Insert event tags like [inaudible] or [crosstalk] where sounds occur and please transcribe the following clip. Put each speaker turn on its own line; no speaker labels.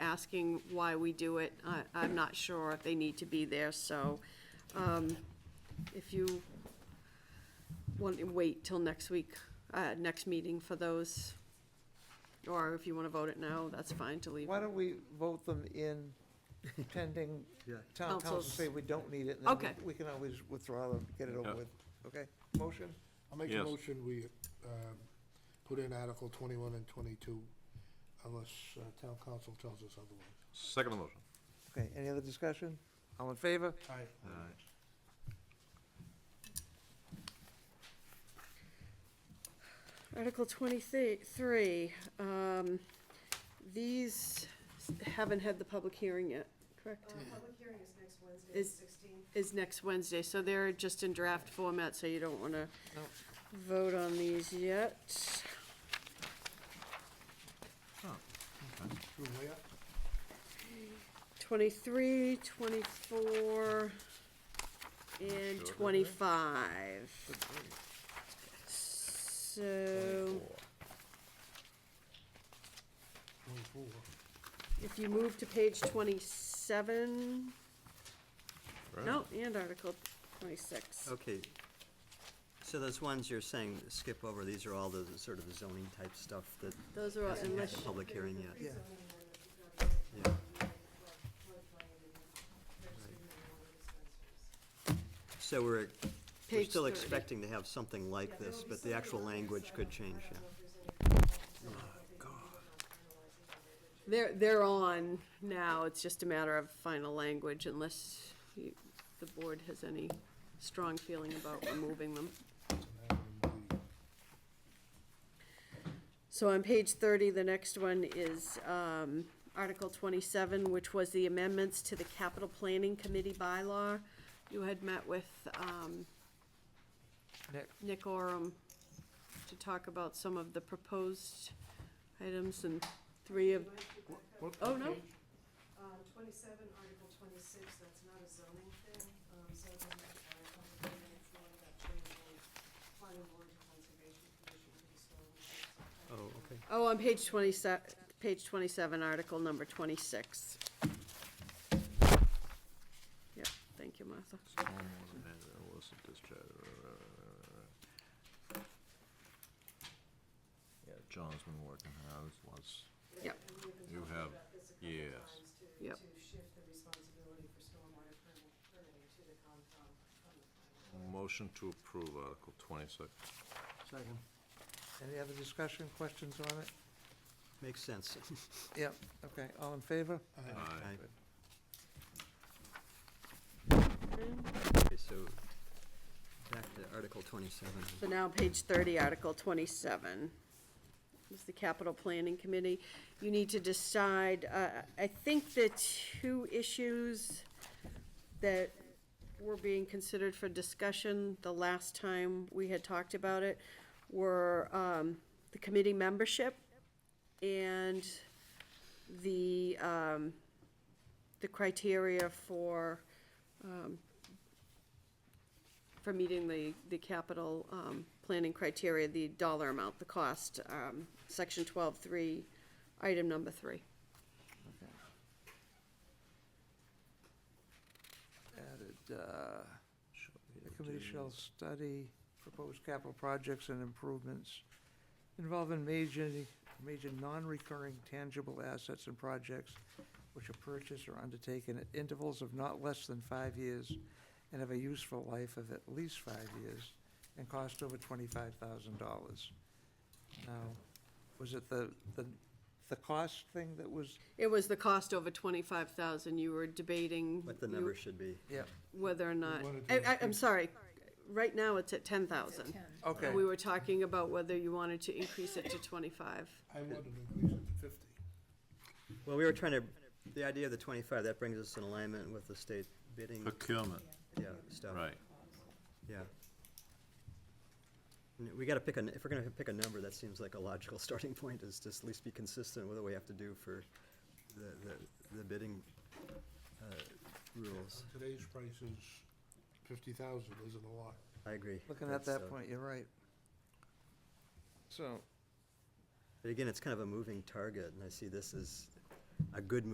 asking why we do it. I, I'm not sure if they need to be there, so, um, if you want to wait till next week, uh, next meeting for those, or if you want to vote it now, that's fine to leave.
Why don't we vote them
[laughs]
in pending
Yeah.
town council
Councils.
say we don't need it, and then
Okay.
we- we can always withdraw them, get it over
Yeah.
with, okay? Motion?
I'll make a
Yes.
motion, we, um, put in Article twenty-one and twenty-two unless uh, town council tells us otherwise.
Second motion.
Okay, any other discussion? All in favor?
Article twenty-three, um, these haven't had the public hearing yet, correct?
Public hearing is next Wednesday,
Is-
sixteenth.
Is next Wednesday, so they're just in draft format, so you don't wanna
No.
vote on these yet.
Through where?
Twenty-three, twenty-four, and twenty-five. So,
Twenty-four.
if you move to page twenty-seven, no, and Article twenty-six.
Okay. So those ones you're saying skip over, these are all the sort of zoning type stuff that
Those are all
hasn't had
unless,
a public hearing yet.
Yeah.
Yeah. So we're, we're
Page
still
30.
expecting to have something like this, but the actual language could change, yeah.
they're, they're on now, it's just a matter of final language unless you- the board has any strong feeling about removing them. So on page thirty, the next one is, um, Article twenty-seven, which was the amendments to the capital planning committee bylaw. You had met with, um,
Nick.
Nick Oram to talk about some of the proposed items and three of, oh, no?
Um, twenty-seven, Article twenty-six, that's not a zoning thing, um, so it doesn't require a public hearing, it's more about changing planning board to conservation commission to
Oh, okay.
Oh, on page twenty-seven, page twenty-seven, article number twenty-six. Yep, thank you, Martha.
uh, Yeah, John's been working hard, was.
Yep.
And we've been
You
talking
have-
about this a couple
yes.
times to,
Yep.
to shift the responsibility for stormwater permit- permitting to the Concom from the planning board.
Motion to approve Article twenty-six.
Second.
Any other discussion, questions on it?
Makes sense.
Yep, okay, all in favor?
Aye.
uh,
Aye.
Okay.
So
Okay, so back to Article twenty-seven.
now page thirty, article twenty-seven. This is the capital planning committee. You need to decide, uh, I think the two issues that were being considered for discussion the last time we had talked about it were, um, the committee membership and the, um, the criteria for, um, for meeting the, the capital, um, planning criteria, the dollar amount, the cost, um, section twelve, three, item number three.
Added, uh, the committee shall study proposed capital projects and improvements involving major, major non-recurring tangible assets and projects which are purchased or undertaken at intervals of not less than five years and have a useful life of at least five years and cost over twenty-five thousand dollars. Now, was it the, the, the cost thing that was?
It was the cost over twenty-five thousand, you were debating.
What the
you-
number should be.
Yeah.
Whether or not,
wanted to
I, I, I'm
increase-
sorry, right now it's at ten thousand.
Okay,
We were talking about whether you wanted to increase it to twenty-five.
I wanted to increase it to fifty.
Well, we were trying to, the idea of the twenty-five, that brings us in alignment with the state bidding,
Procurement,
yeah, stuff.
right.
Yeah. N- We gotta pick a, n- if we're gonna pick a number, that seems like a logical [laughs] starting point, is just at least be consistent with what we have to do for the, the, the bidding, uh, rules.
Today's price is fifty thousand, isn't a lot.
I agree.
looking at
That's,
that
uh,
point, you're right. So.
But again, it's kind of a moving target, and I see this as a good